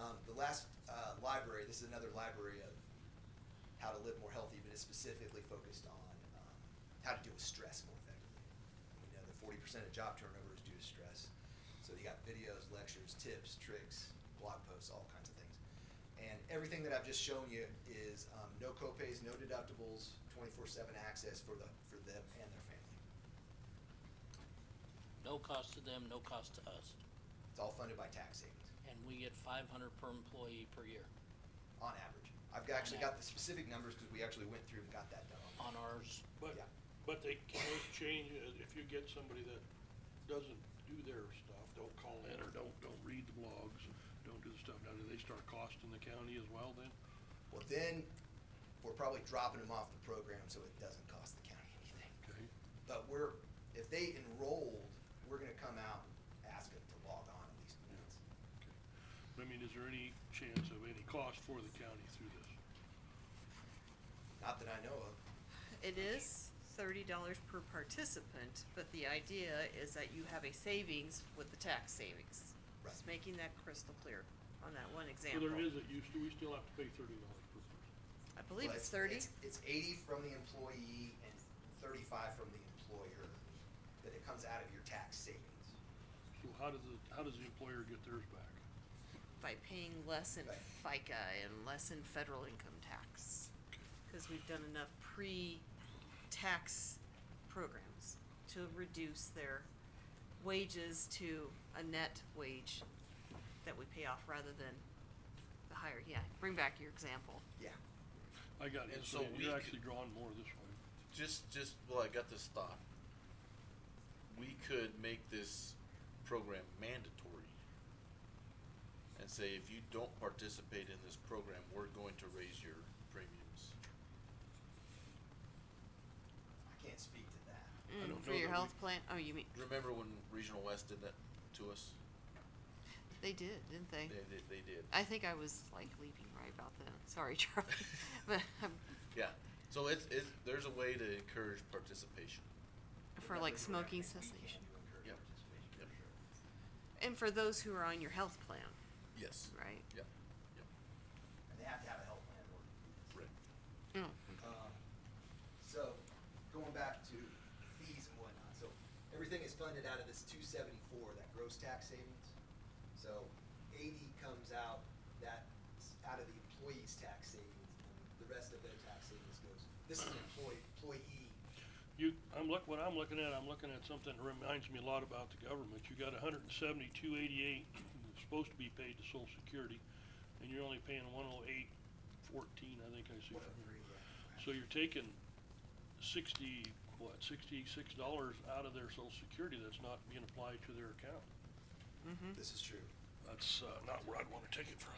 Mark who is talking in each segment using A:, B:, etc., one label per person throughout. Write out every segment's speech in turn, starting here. A: Um, last uh, library, this is another library of how to live more healthy, but it's specifically focused on um, how to deal with stress more effectively. We know that forty percent of job turnover is due to stress, so you got videos, lectures, tips, tricks, blog posts, all kinds of things. And everything that I've just shown you is um, no copays, no deductibles, twenty-four seven access for the for them and their family.
B: No cost to them, no cost to us,
A: It's all funded by tax savings.
B: and we get five hundred per employee per year
A: on average. I've got- actually got the specific numbers because we actually went through and got that done.
B: on ours.
C: But,
A: Yeah.
C: but they can always change, it. if you get somebody that doesn't do their stuff, don't call in or don't, don't read the blogs, don't do the stuff, now do they start costing the county as well then?
A: Well, then, we're probably dropping them off the program so it doesn't cost the county anything.
C: Okay,
A: But we're, if they enrolled, we're gonna come out and ask them to log on at least once.
C: okay. I mean, is there any chance of any cost for the county through this?
A: Not that I know of.
D: It is thirty dollars per participant, but the idea is that you have a savings with the tax savings. Just
A: Right.
D: making that crystal clear on that one
C: Well,
D: example.
C: there is, it used to, we still have to pay thirty dollars per person.
D: I believe
A: Well,
D: it's thirty.
A: It's eighty from the employee and thirty-five from the employer, that it comes out of your tax savings.
C: So how does the, how does the employer get theirs back?
D: by paying less in
A: Right.
D: FICA and less in federal income tax. Cause we've done enough pre-tax programs to reduce their wages to a net wage that we pay off rather than the higher, yeah, bring back your example.
A: Yeah.
C: I got it,
E: And
C: so
E: so we
C: you're
E: could-
C: actually drawing more this way.
E: just just well I got this thought. We could make this program mandatory and say if you don't participate in this program, we're going to raise your premiums.
A: I can't speak to that.
C: I don't
D: Mm, for
C: know
D: your
C: that we-
D: health plan, oh, you mean,
E: Remember when Regional West did that to us?
D: they did, didn't
E: They
D: they?
E: they, they did.
D: I think I was like leaving right about then, sorry Charlie, but um,
E: Yeah. So it's it's there's a way to encourage participation.
D: for
A: There's
D: like
A: nothing we're gonna
D: smoking
A: do. We can't
D: cessation.
A: do encourage
E: Yep.
A: participation, for
E: Yep.
A: sure.
D: And for those who are on your health plan,
E: Yes.
D: right?
E: Yeah.
A: And they have to have a health plan in order to do this.
E: Right.
D: Mm.
A: Um, So, going back to fees and whatnot, so everything is funded out of this two seventy-four, that gross tax savings. So eighty comes out, that's out of the employee's tax savings, and the rest of their tax savings goes, this is employee, employee.
C: You, I'm look, what I'm looking at, I'm looking at something that reminds me a lot about the government. You got a hundred and seventy-two eighty-eight, supposed to be paid to social security, and you're only paying one oh eight fourteen, I think I see.
A: One
C: from
A: oh
C: here.
A: three, yeah.
C: So you're taking sixty, what, sixty-six dollars out of their social security that's not being applied to their account.
D: Mm-hmm.
A: This is true.
C: That's, uh, not where I'd wanna take it from.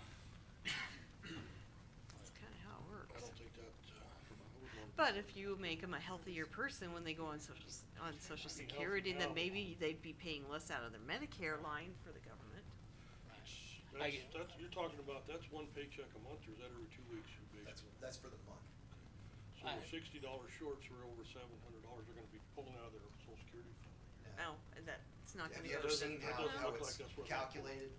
D: That's kind of how it
C: I
D: works.
C: don't think that, uh, I would want-
D: But if you make them a healthier person when they go on social, s- on social
C: Be healthy
D: security, then
C: now.
D: maybe they'd be paying less out of their Medicare line for the government.
B: I,
C: That's, that's, you're talking about, that's one paycheck a month, or is that every two weeks, basically?
A: That's, that's for the month.
C: So we're
B: Alright.
C: sixty dollars short, so we're over seven hundred dollars, they're gonna be pulling out of their social security fund.
A: Yeah.
D: Oh, and that's not
A: Have
D: gonna
A: you
D: go.
A: ever seen
C: That
A: how,
C: doesn't
A: how
C: look
A: it's
C: like that's what-
A: calculated,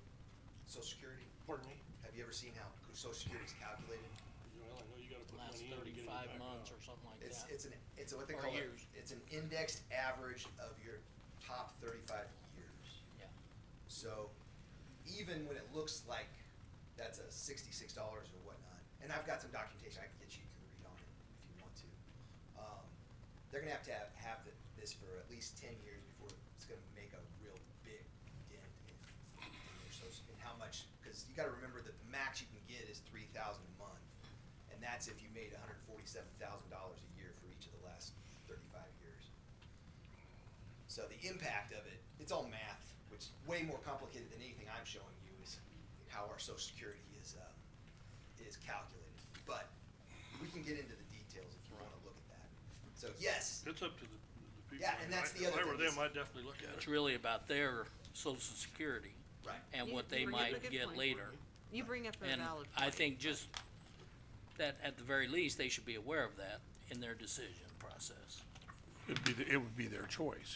A: social security?
C: Pardon me?
A: Have you ever seen how social security is calculated?
C: Well, I know you gotta put
B: last
C: money in to get it
B: thirty-five
C: back
B: months
C: out.
B: or something like
A: It's,
B: that.
A: it's an, it's a- what they
B: Or
A: call it,
B: years.
A: it's an indexed average of your top thirty-five years.
B: Yeah.
A: So even when it looks like that's a sixty-six dollars or whatnot, and I've got some documentation I can get you to read on it if you want to. Um, they're gonna have to have, have th- this for at least ten years before it's gonna make a real big dent in, in their social, in how much, cause you gotta remember that the max you can get is three thousand a month. And that's if you made hundred forty-seven thousand dollars a year for each of the last thirty-five years. So the impact of it, it's all math, which is way more complicated than anything I'm showing you is how our social security is, um, is calculated. But we can get into the details if you wanna look at that. So yes,
C: It's up to the, the people.
A: Yeah, and that's the other
C: If I were
A: thing is-
C: them, I'd definitely look at
B: It's
C: it.
B: really about their social security
A: right,
B: and
D: You-
B: what
D: you
B: they
D: bring up a
B: might
D: good
B: get
D: point.
B: later.
D: You bring up a valid
B: And
D: point.
B: I think just that at the very least, they should be aware of that in their decision process.
F: It'd be, the- it would be their choice.